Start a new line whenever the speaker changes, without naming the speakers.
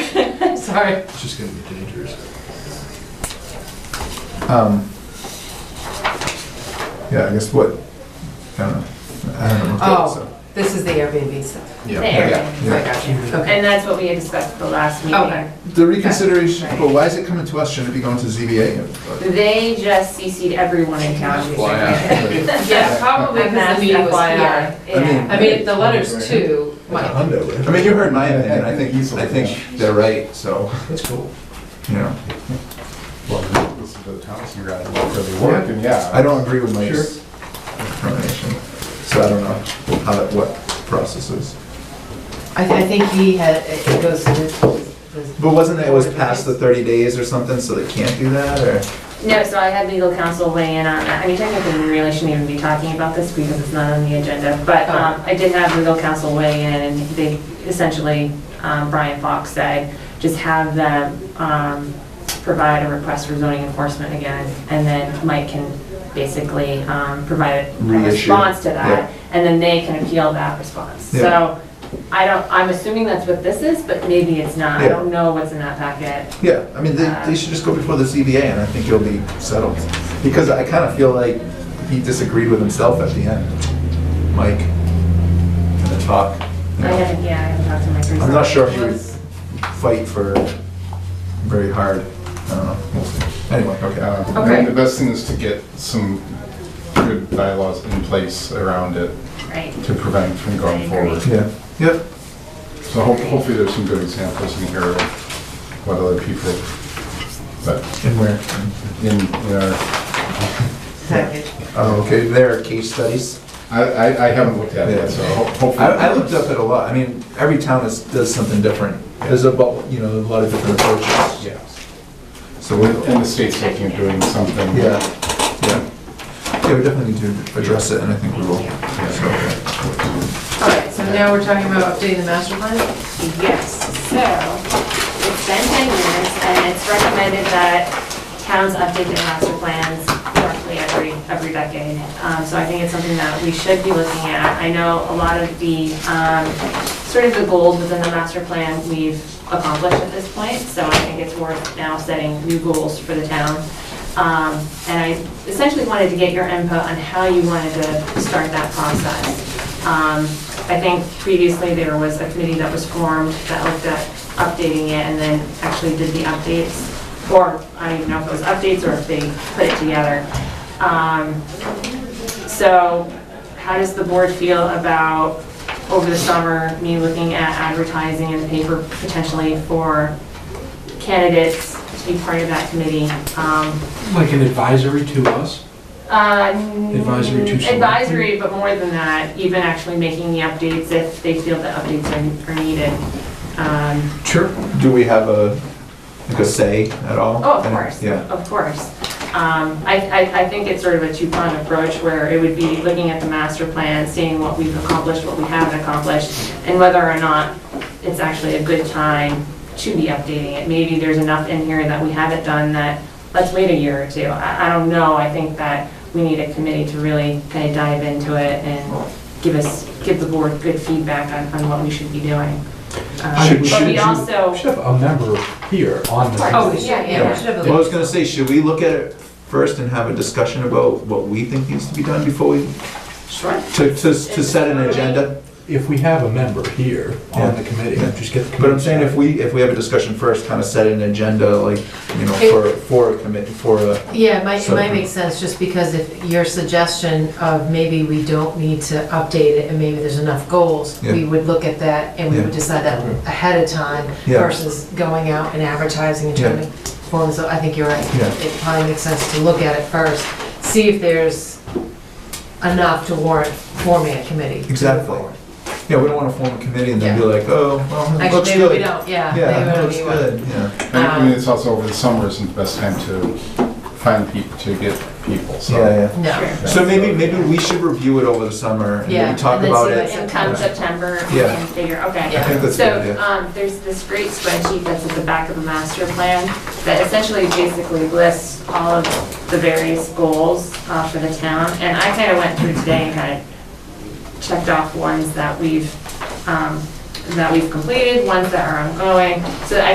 Sorry.
It's just gonna be dangerous.
Um, yeah, I guess what, I don't know. I don't know. what that is, so.
Oh, this is the Airbnb stuff.
Yeah.
There.
Yeah,
I
yeah.
got you. Okay.
And that's what we had discussed at the last
Okay.
meeting.
The reconsideration,
Right.
but why is it coming to us? Shouldn't it be going to ZBA?
They just CC'd everyone in town.
Yeah, probably
I've
because
asked
the meeting was
FYI. Yeah.
I mean, the letters too,
Like a
might,
hundo, right?
I mean, you heard my opinion. I think, I think they're right, so,
That's cool.
you know.
Well, this is the Thompson guy, it won't really work, and yeah.
I don't agree with my
Sure.
determination, so I don't know how that, what process is.
I, I think he had, it goes to this. this-
But wasn't it, it was past the 30 days or something, so they can't do that, or?
No, so I had legal counsel weigh in on that. I mean, technically, we really shouldn't even be talking about this because it's not on the agenda. But
Oh.
um, I did have legal counsel weigh in and they essentially, um, Brian Fox said, just have them um, provide a request for zoning enforcement again. And then Mike can basically um, provide a
Reissue.
response to
Yeah.
that. And then they can appeal that response.
Yeah.
So I don't, I'm assuming that's what this is, but maybe it's not. I
Yeah.
don't know what's in that packet.
Yeah, I mean, they, they should just go before the ZBA, and I think it'll be settled. Because I kind of feel like he disagreed with himself at the end, Mike, in the talk. you
I
know.
haven't, yeah, I haven't talked to Mike recently.
I'm not sure if he would
Was-
fight for very hard, I don't know, we'll see. Anyway, okay, uh,
um,
Uh,
Okay.
The best thing is to get some good bylaws in place around it
Right.
to prevent from
I
going
agree.
forward.
yeah, yep,
So ho- hopefully there's some good examples in here of what other people, but
and where?
in, in our-
Package.
Oh, okay, there are case studies.
I, I, I haven't looked at
Yeah.
it, so ho- hopefully.
I, I looked up at a lot, I mean, every town is, does something different. There's a, bu- you know, a lot of different approaches.
Yeah.
So we
And the state's looking at doing something.
Yeah, yeah. Yeah, we definitely need to address it, and I think we will. So,
All right, so now we're talking about updating the master plan?
Yes, so it's been 10 years and it's recommended that towns update their master plans roughly every, every decade. Um, So I think it's something that we should be looking at. I know a lot of the, um, sort of the goals within the master plan we've accomplished at this point. So I think it's worth now setting new goals for the town. Um, And I essentially wanted to get your input on how you wanted to start that process. Um, I think previously there was a committee that was formed that looked at updating it and then actually did the updates. Or, I don't even know if it was updates or if they put it together. Um, So how does the board feel about, over the summer, me looking at advertising in the paper potentially for candidates to be part of that committee? Um,
Like an advisory to us?
uh,
Advisory to select.
Advisory, but more than that, even actually making the updates if they feel the updates are- are needed. Um,
Sure.
Do we have a, like a say at all?
Oh, of course,
Yeah,
of course. Um, I, I, I think it's sort of a two-pronged approach where it would be looking at the master plan, seeing what we've accomplished, what we haven't accomplished, and whether or not it's actually a good time to be updating it. Maybe there's enough in here that we haven't done that, let's wait a year or two. I, I don't know, I think that we need a committee to really kind of dive into it and give us, give the board good feedback on, on what we should be doing. Um,
Should-
But
should
we
you-
also,
We should have a member here on the.
oh, yeah, yeah,
we should have a-
well, I was gonna say, should we look at it first and have a discussion about what we think needs to be done before we,
sure.
to, to, to set an agenda?
If we have a member here on
Yeah.
the committee, just get the committee.
But I'm saying if we, if we have a discussion first, kind of set an agenda, like, you know, for, for a commit, for a,
Yeah, it might, it might
So-
make sense, just because if your suggestion of maybe we don't need to update it and maybe there's enough goals, we
Yeah.
would look at that and we
Yeah.
would decide that ahead of time
Yeah.
versus going out and advertising and trying
Yeah.
to form, so I think you're right.
Yeah.
It probably makes sense to look at it first, see if there's enough to warrant forming a committee. to move
Exactly.
forward.
yeah, we don't wanna form a committee and then be
Yeah.
like, oh, well, it looks
Actually, maybe we
good.
don't, yeah. maybe we
Yeah, it
don't
looks
need one.
good, yeah.
And I mean, it's also over the summer isn't the best time to find people, to get people, so.
Yeah, yeah.
No,
So maybe, maybe we should review it over the summer and
Yeah,
maybe talk
and then
about
see
it.
what-
And come September, we
Yeah.
can figure, okay.
I think that's a good
So,
idea.
um, there's this great spreadsheet that's at the back of the master plan that essentially basically lists all of the various goals uh, for the town. And I kind of went through today and kind of checked off ones that we've, um, that we've completed, ones that are ongoing. So I